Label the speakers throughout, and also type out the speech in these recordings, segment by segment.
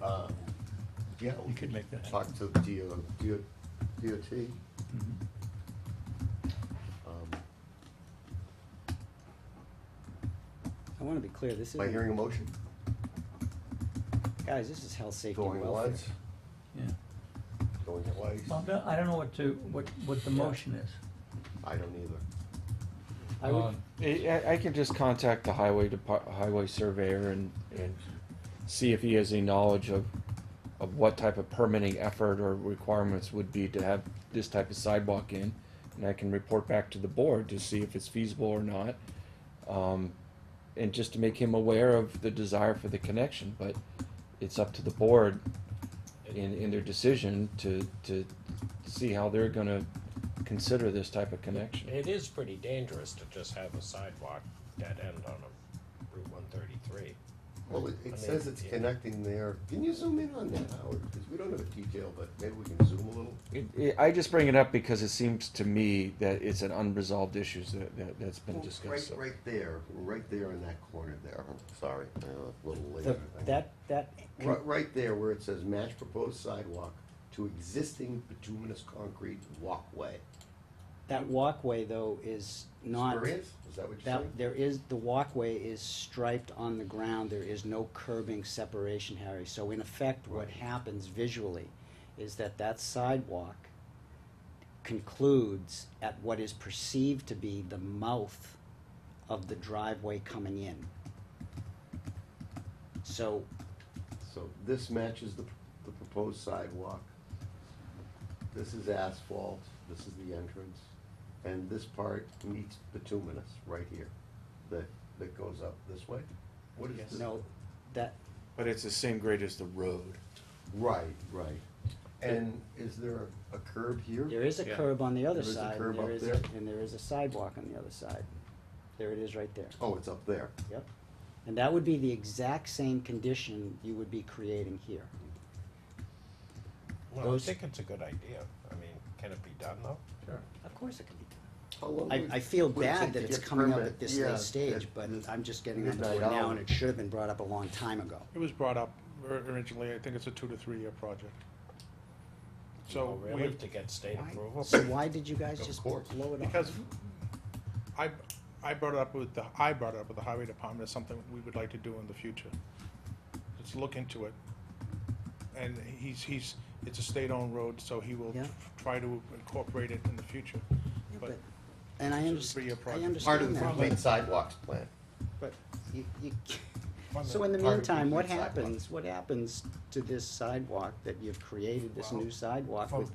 Speaker 1: uh, yeah, we
Speaker 2: You could make that.
Speaker 1: talk to the DO, DO, DOT.
Speaker 2: Mhm.
Speaker 1: um,
Speaker 3: I want to be clear, this
Speaker 1: Am I hearing a
Speaker 3: isn't,
Speaker 1: motion?
Speaker 3: guys, this is health, safety, and
Speaker 1: Going
Speaker 3: welfare.
Speaker 1: once,
Speaker 2: Yeah.
Speaker 1: going
Speaker 2: Well,
Speaker 1: twice?
Speaker 2: no, I don't know what to, what, what the
Speaker 3: Yeah.
Speaker 2: motion is.
Speaker 1: I don't either.
Speaker 3: I would,
Speaker 4: Um, I, I can just contact the highway depart, highway surveyor and, and see if he has any knowledge of, of what type of permitting effort or requirements would be to have this type of sidewalk in. And I can report back to the board to see if it's feasible or not. Um, and just to make him aware of the desire for the connection, but it's up to the board in, in their decision to, to see how they're gonna consider this type of connection.
Speaker 5: It is pretty dangerous to just have a sidewalk dead end on a Route one thirty-three.
Speaker 1: Well, it,
Speaker 5: I
Speaker 1: it says
Speaker 5: mean,
Speaker 1: it's
Speaker 5: yeah.
Speaker 1: connecting there. Can you zoom in on that, Howard? Because we don't have a detail, but maybe we can zoom a little.
Speaker 4: It, it, I just bring it up because it seems to me that it's an unresolved issue that, that, that's been
Speaker 1: Well,
Speaker 4: discussed. so.
Speaker 1: Right, right there, right there in that corner there. Sorry, uh, a little later.
Speaker 3: the- that, that,
Speaker 1: Right, right there where it says match proposed sidewalk to existing bituminous concrete walkway.
Speaker 3: that walkway though is not.
Speaker 1: Spurious? Is that what you're saying?
Speaker 3: That, there is, the walkway is striped on the ground, there is no curbing separation, Harry, so in effect, what
Speaker 1: Right.
Speaker 3: happens visually is that that sidewalk concludes at what is perceived to be the mouth of the driveway coming in. So,
Speaker 1: So this matches the, the proposed sidewalk. This is asphalt, this is the entrance, and this part meets bituminous right here, that, that goes up this way? What is this?
Speaker 3: no, that,
Speaker 4: But it's the same grade as the road.
Speaker 1: Right, right. And is there a curb here?
Speaker 3: there is a
Speaker 5: Yeah.
Speaker 3: curb on the other
Speaker 1: There is a
Speaker 3: side,
Speaker 1: curb
Speaker 3: and there is,
Speaker 1: up there.
Speaker 3: and there is a sidewalk on the other side. There it is right there.
Speaker 1: Oh, it's up there.
Speaker 3: Yep. And that would be the exact same condition you would be creating here.
Speaker 5: Well, I
Speaker 3: Those-
Speaker 5: think it's a good idea. I mean, can it be done though?
Speaker 3: Of course it could be. done.
Speaker 1: How long would-
Speaker 3: I, I feel
Speaker 1: would it take
Speaker 3: bad that
Speaker 1: to
Speaker 3: it's
Speaker 1: get
Speaker 3: coming up
Speaker 1: permit?
Speaker 3: at this
Speaker 1: Yeah,
Speaker 3: late stage,
Speaker 1: at
Speaker 3: but
Speaker 1: this-
Speaker 3: I'm just getting on the
Speaker 1: midnight
Speaker 3: board now,
Speaker 1: hour.
Speaker 3: and it should have been brought up a long time ago.
Speaker 6: It was brought up or- originally, I think it's a two to three year project.
Speaker 5: Well,
Speaker 6: So we
Speaker 5: Really,
Speaker 6: have,
Speaker 5: to get state
Speaker 6: Why?
Speaker 5: approval?
Speaker 3: So why did you guys
Speaker 1: Of
Speaker 3: just blow
Speaker 1: course.
Speaker 3: it up?
Speaker 6: because I, I brought it up with the, I brought it up with the highway department as something we would like to do in the future. Let's look into it. And he's, he's, it's a state-owned road, so he will
Speaker 3: Yeah.
Speaker 6: try to incorporate it in the future.
Speaker 3: Yeah,
Speaker 6: But
Speaker 3: but- And I
Speaker 6: It's a
Speaker 3: understand,
Speaker 6: three-year
Speaker 3: I
Speaker 6: project.
Speaker 1: Part of
Speaker 3: understand
Speaker 1: the
Speaker 3: that,
Speaker 1: complete
Speaker 3: but,
Speaker 1: sidewalks plan.
Speaker 3: but you, you, so
Speaker 1: the-
Speaker 3: in the
Speaker 1: part of
Speaker 3: meantime, what
Speaker 1: complete sidewalk.
Speaker 3: happens, what happens to this sidewalk that you've created, this new sidewalk
Speaker 5: From-
Speaker 3: with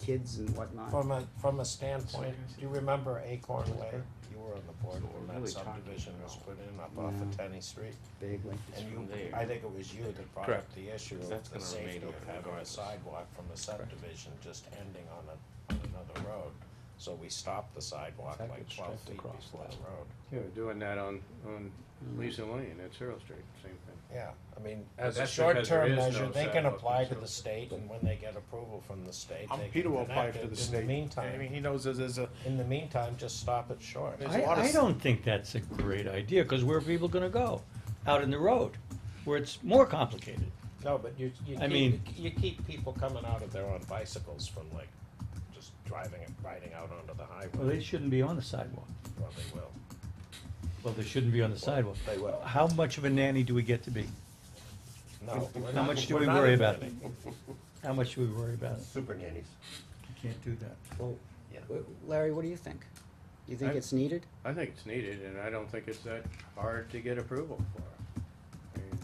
Speaker 3: kids and whatnot?
Speaker 5: From a, from a standpoint, do you remember Acorn Way? You were on the board when that subdivision was put in up off of
Speaker 3: No.
Speaker 5: Tenny Street.
Speaker 3: Vaguely.
Speaker 5: And you, I think it was you that brought up the issue of the safety of having a sidewalk from a subdivision just ending on a, on another road. So we stopped the sidewalk like twelve feet before the road.
Speaker 7: Yeah, we're doing that on, on Lisa Lane at Cyril Street, same thing.
Speaker 5: Yeah, I mean, as a
Speaker 7: That's because there
Speaker 5: short-term
Speaker 7: is no
Speaker 5: measure, they can
Speaker 7: sidewalk
Speaker 5: apply to
Speaker 7: until-
Speaker 5: the state, and when they get approval from the state,
Speaker 6: um,
Speaker 5: they
Speaker 6: Peter
Speaker 5: can
Speaker 6: will apply
Speaker 5: connect
Speaker 6: to the
Speaker 5: it.
Speaker 6: state.
Speaker 5: In the
Speaker 6: I mean,
Speaker 5: meantime,
Speaker 6: he knows there's, there's a,
Speaker 5: in the meantime, just stop it short.
Speaker 6: There's a
Speaker 2: I,
Speaker 6: lot of
Speaker 2: I
Speaker 6: s-
Speaker 2: don't think that's a great idea, because where are people gonna go? Out in the road, where it's more complicated.
Speaker 5: No, but you, you
Speaker 2: I mean-
Speaker 5: keep, you keep people coming out of there on bicycles from like, just driving and riding out onto the
Speaker 2: Well, they
Speaker 5: highway.
Speaker 2: shouldn't be on the sidewalk.
Speaker 5: Well, they will.
Speaker 2: Well, they shouldn't be on the sidewalk.
Speaker 5: they will.
Speaker 2: How much of a nanny do we get to be?
Speaker 5: No. we're
Speaker 2: How
Speaker 5: not-
Speaker 2: much do
Speaker 5: we're
Speaker 2: we
Speaker 5: not
Speaker 2: worry about it?
Speaker 5: admitting.
Speaker 2: How much do we worry about it?
Speaker 1: Super nannies.
Speaker 2: You Can't do that.
Speaker 3: Well,
Speaker 1: Yeah.
Speaker 3: w- Larry, what do you think? You think
Speaker 7: I'm-
Speaker 3: it's needed?
Speaker 7: I think it's needed, and I don't think it's that hard to get approval for. I mean,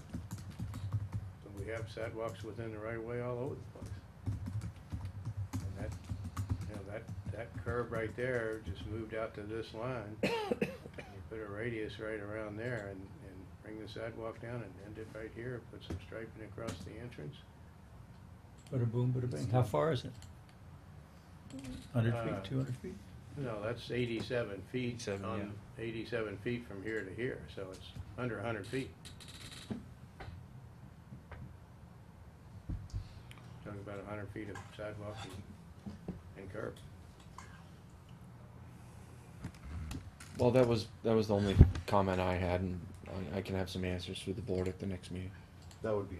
Speaker 7: We have sidewalks within the right of way all over the place. And that, you know, that, that curb right there just moved out to this line. and You put a radius right around there and, and bring the sidewalk down and end it right here, put some striping across the entrance.
Speaker 2: Bada boom, bada bing. How far is it? Hundred
Speaker 7: Uh,
Speaker 2: feet, two hundred feet?
Speaker 7: No, that's eighty-seven feet
Speaker 4: 87,
Speaker 7: on, eighty-seven feet from here to here, so it's under a hundred feet. Talking about a hundred feet of sidewalk and- and curb.
Speaker 4: Well, that was, that was the only comment I had and I, I can have some answers through the board at the next meeting.
Speaker 1: That would be